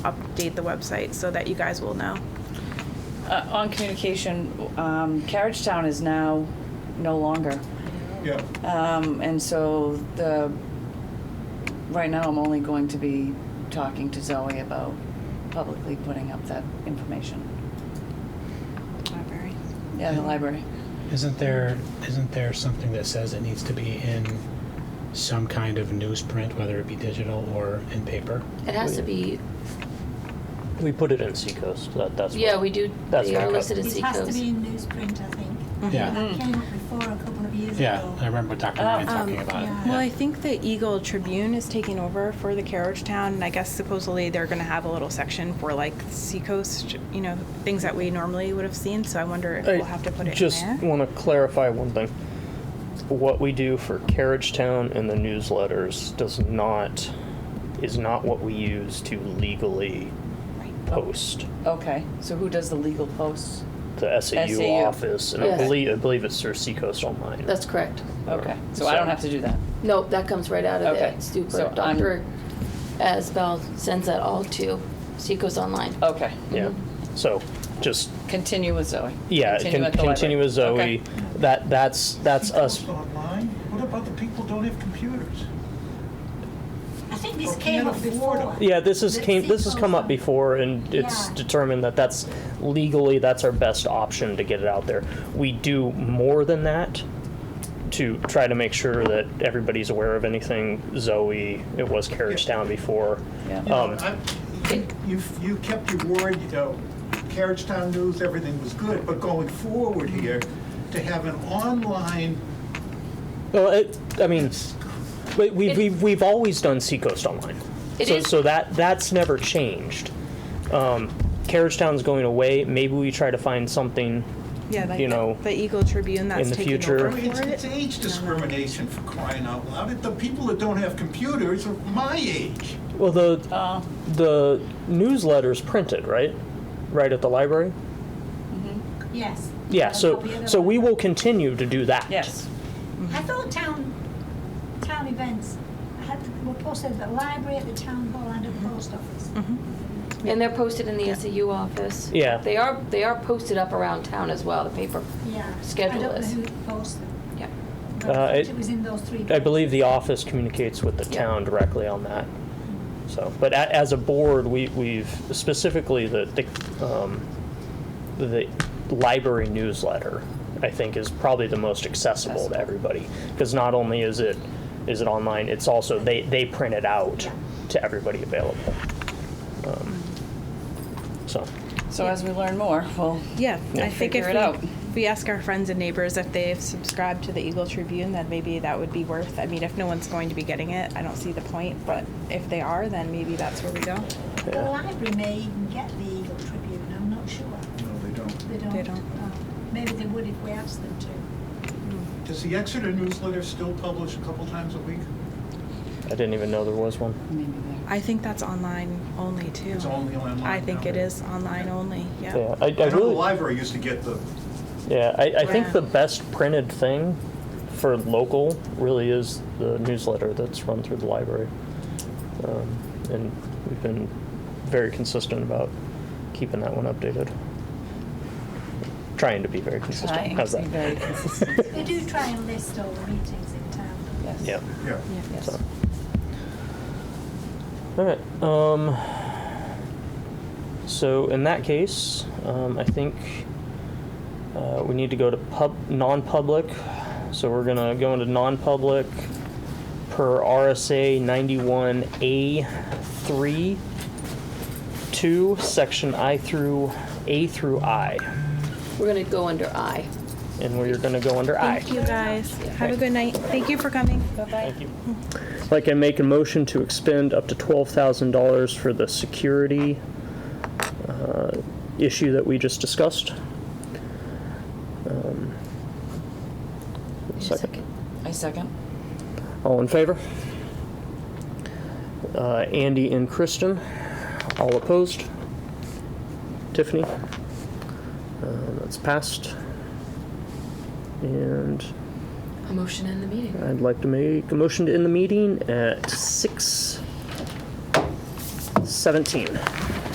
update the website so that you guys will know. Uh, on communication, um, Carriage Town is now no longer. Yeah, Um, and so the, right now I'm only going to be talking to Zoe about publicly putting up that information. Library. Yeah, the library. Isn't there, isn't there something that says it needs to be in some kind of newsprint, whether it be digital or in paper? It has to be, We put it in Seacoast. That, that's yeah, what- we do, that's they are what- listed as It has to be Seacoast. in newsprint, I think. Mm-hmm. Yeah, That came up before a couple of years ago. yeah, I remember Dr. Ryan Oh, talking um, about it. yeah. yeah. Well, I think the Eagle Tribune is taking over for the Carriage Town, and I guess supposedly they're going to have a little section for like Seacoast, you know, things that we normally would have seen. So I wonder if we'll have to put it just in there. want to clarify one thing. What we do for Carriage Town and the newsletters does not is not what we use to legally Oh. post Okay, so who does the legal posts? the SAU, SAU. office, and Yes. I believe I believe it's through Seacoast Online. That's correct. Okay, so I don't have to do that. No, that comes right out of Okay, it. Super. so I'm- Dr. Asbell sends that all to Seacoast Online. Okay, yeah. Mm-hmm. So just continue with Zoe. yeah, Continue continue, at con- the library. continue with Zoe. Okay. That that's that's us. People Online, what about the people who don't have computers? I think this Or came can't up afford before. Yeah, this is The came this has come up Seacoast. before, and it's Yeah. determined that that's legally that's our best option to get it out there. We do more than that to try to make sure that everybody's aware of anything. Zoe, it was Carriage Town before. Yeah. Um, I- You, you kept your word, you know, Carriage Town News, everything was good, but going forward here, to have an online, well, it, I mean, we, we, we've we've always done Seacoast Online, It so is- so that that's never changed. Um, Carriage Town's going away. Maybe we try to find something. Yeah, like you the- know, the, Eagle Tribune that's in the taking future- I over mean, it's, for it's it. age discrimination for crying out loud. The people that don't have computers are my age. Well, the Oh, the newsletter's printed, right? Right at the library? Mm-hmm. Yes. Yeah, A so, copy of the so we will library. continue to do that. yes. I thought town, town events had, were posted at the library, at the town hall, and at the post office. And they're posted in the SAU office. Yeah. They are, they are posted up around town as well, the paper. Yeah. Schedule I don't know is. who posts them, Yeah. but Uh, I it- thought it was in those three. I believe the office communicates with the Yeah. town directly on that. So, but a, as a board, we, we've specifically the, the, um, the library newsletter, I think is probably the most accessible to everybody. Because not only is it, is it online, it's also, they, they print it out to everybody available. Um, So, So as we learn more, we'll Yeah, Yeah. I think if Figure it we, out. if we ask our friends and neighbors if they've subscribed to the Eagle Tribune, then maybe that would be worth. I mean, if no one's going to be getting it, I don't see the point. But if they are, then maybe that's where we go. The library may even get the Eagle Tribune, I'm not sure. No, they don't. They don't. They don't. uh, Maybe they would if we asked them to. Does the Exeter newsletter still publish a couple times a week? I didn't even know there was one. maybe I think that's online only too. It's only online. I think it now. is online only. Yeah. Yeah, I, I I know the really, library used to get the, yeah, I, I Yeah. think the best printed thing for local really is the newsletter that's run through the library. Um, and we've been very consistent about keeping that one updated. Trying to be very there. consistent. Trying How's to be that? very consistent. They do try and list all the meetings in town. Yes. Yeah. yeah. Yeah. Yes. So. All right. Um, so in that case, um, I think uh, we need to go to pub non-public. So we're gonna go into non-public per RSA 91A three two section I through A through I, We're gonna go under I. and we're gonna go under I. Thank you guys. Have a good night. Thank you for coming. Thank you. Like I make a motion to expend up to twelve thousand dollars for the security uh, issue that we just discussed. Um, Second. I second. All in favor? Uh, Andy and Kristen, all opposed? Tiffany? Uh, That's passed. And A motion in the meeting. I'd like to make a motion to end the meeting at six seventeen.